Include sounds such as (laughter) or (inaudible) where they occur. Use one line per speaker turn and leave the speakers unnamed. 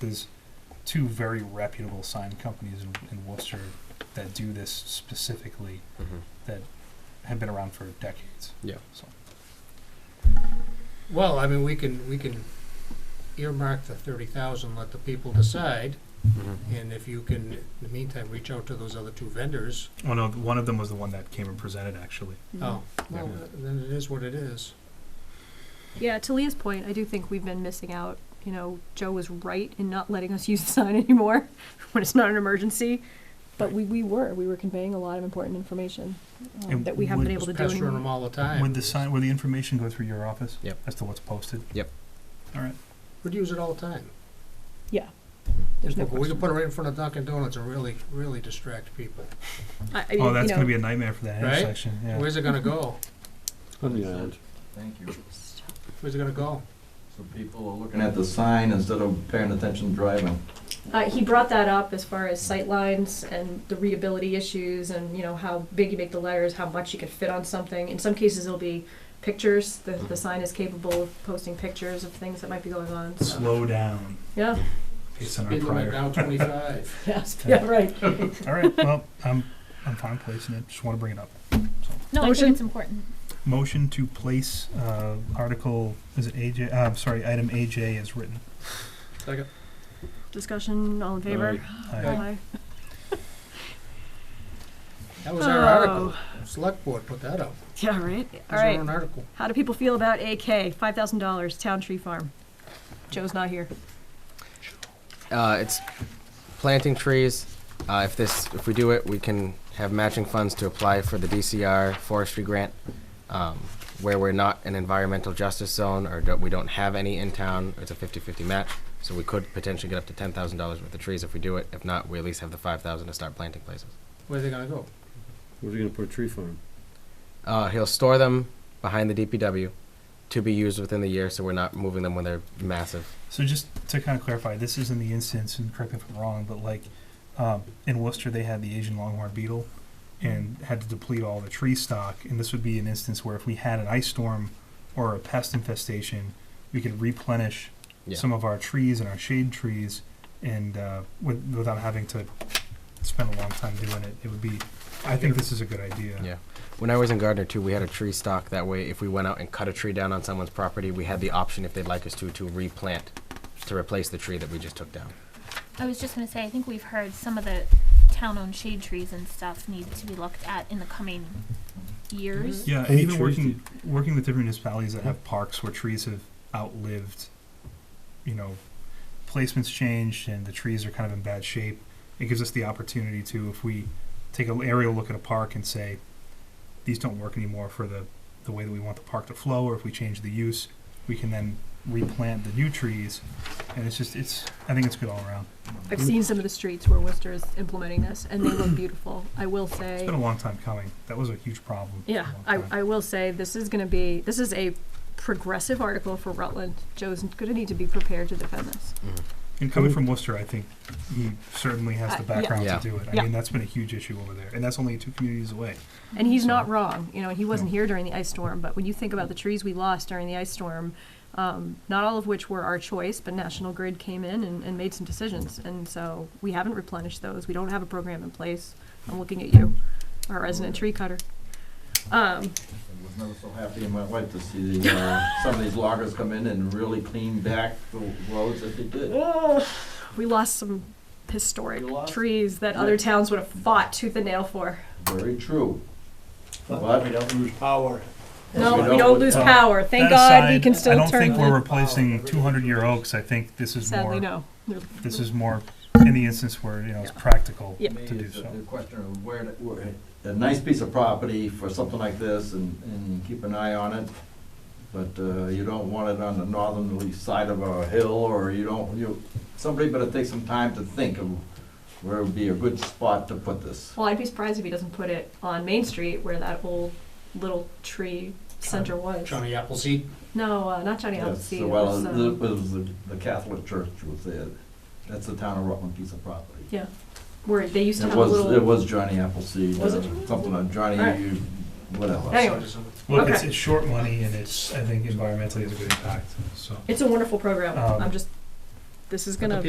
there's two very reputable sign companies in, in Worcester that do this specifically have been around for decades.
Yeah.
So
Well, I mean, we can, we can earmark the thirty thousand, let the people decide, and if you can, in the meantime, reach out to those other two vendors,
Oh no, one of them was the one that came and presented actually.
Mm-hmm.
oh, well,
Yeah.
then it is what it is.
Yeah, to Leah's point, I do think we've been missing out. You know, Joe was right in not letting us (laughs) use the sign anymore when it's not an emergency. But we, we were, we were conveying a lot of important information um,
And
that we haven't
would-
been able
Just
to do
pestering them
anymore.
all the time.
Would the sign would the information go through your office?
Yep.
As to what's posted?
Yep.
All right.
We'd use it all the time.
Yeah. There's no
But we could
question.
put it right in front of Dunkin' Donuts and really, really distract people.
I, I mean,
oh, that's
you know,
gonna be a nightmare for that
Right?
intersection. Yeah.
Where's it gonna go?
On the island.
Thank you.
Where's it gonna go?
So people are looking at the sign instead of paying attention driving.
Uh, he brought that up as far as sight lines and the readability issues and, you know, how big you make the letters, how much you could fit on something. In some cases, it'll be pictures. The, the sign is capable of posting pictures of things that might be going on. So,
Slow down.
yeah. (laughs)
Based on our
Speed limit
prior. (laughs)
down twenty-five.
Yes.
Yeah.
Yeah, right.
All right. Well, I'm I'm fine placing it. Just want to bring it up.
No, I
Motion?
think it's important.
Motion to place uh, article is it AJ? Uh, I'm sorry, item AJ is written.
Second.
Discussion, all in favor?
I,
That was our article. Select board put that up.
Yeah, right?
It
Oh. All
was our
right.
own article.
How do people feel about AK? Five thousand dollars, Town Tree Farm. Joe's not here.
Uh, it's planting trees. Uh, if this, if we do it, we can have matching funds to apply for the DCR forestry grant, um, where we're not an environmental justice zone or don't, we don't have any in town. It's a 50-50 match, so we could potentially get up to ten thousand dollars worth of trees if we do it. If not, we at least have the five thousand to start planting places.
Where's it gonna go?
Where's he gonna put a tree farm?
Uh, he'll store them behind the DPW to be used within the year, so we're not moving them when they're massive.
so just to kind of clarify, this is in the instance, and correct me if I'm wrong, but like um, in Worcester, they had the Asian longhorn beetle
Mm-hmm.
and had to deplete all the tree stock. And this would be an instance where if we had an ice storm or a pest infestation, we could replenish
Yeah.
some of our trees and our shade trees, and uh, with, without having to spend a long time doing it, it would be. I think this is a good idea.
Yeah. When I was in Gardner too, we had a tree stock. That way, if we went out and cut a tree down on someone's property, we had the option, if they'd like us to, to replant, to replace the tree that we just took down.
I was just gonna say, I think we've heard some of the town-owned shade trees and stuff need to be looked at in the coming years.
Yeah, and
Any
even
trees
working working with different municipalities that have parks where trees have outlived, you know, placements changed and the trees are kind of in bad shape. It gives us the opportunity to, if we take an aerial look at a park and say, these don't work anymore for the the way that we want the park to flow, or if we change the use, we can then replant the new trees. And it's just it's I think it's good all around.
I've seen some of the streets where Worcester is implementing this, and they look beautiful. I will
It's
say,
been a long time coming. That was a huge problem. for a
yeah,
long
I,
time.
I will say, this is gonna be, this is a progressive article for Rutland. Joe's gonna need to be prepared to defend this.
And coming from Worcester, I think he certainly has the
Uh, yeah.
background
Yeah.
to do it. I
Yeah.
mean, that's been a huge issue over there, and that's only two communities away.
And he's
So-
not wrong, you know, he wasn't
No.
here during the ice storm, but when you think about the trees we lost during the ice storm, um, not all of which were our choice, but National Grid came in and, and made some decisions, and so we haven't replenished those, we don't have a program in place. I'm looking at you, our resident tree cutter. Um,
I was never so happy in my life to see the, uh, some of these loggers come in and really clean back the roads that they did.
we lost some historic
You lost-
trees that other towns would have fought tooth and nail for.
Very true. But we don't lose power.
No, we don't
uh,
lose power, thank God we can
I
still
don't think
turn,
we're replacing 200-year oaks. I think this is
sadly,
more.
no.
This is more in the instance where you know it's practical
Yeah.
to do
It's a-
so.
The question of where, to- where- a nice piece of property for something like this and, and keep an eye on it. But, uh, you don't want it on the northerly side of a hill or you don't, you, somebody better take some time to think of where would be a good spot to put this.
Well, I'd be surprised if he doesn't put it on Main Street where that old little tree center was.
Johnny Appleseed.
No, uh, not Johnny
Yes,
Appleseed. it
well,
was,
it
um,
was the the Catholic Church was there. That's the town of Rutland piece of property.
yeah, where they used to
It
have a
was, it
little.
was Johnny Appleseed,
Was
uh,
it Johnny
something on Johnny,
Alright.
you- whatever.
Anyway.
Look, it's,
Okay.
it's short money, and it's I think environmentally has a good impact. So.
It's a wonderful program.
Um,
I'm just. This is
But the
gonna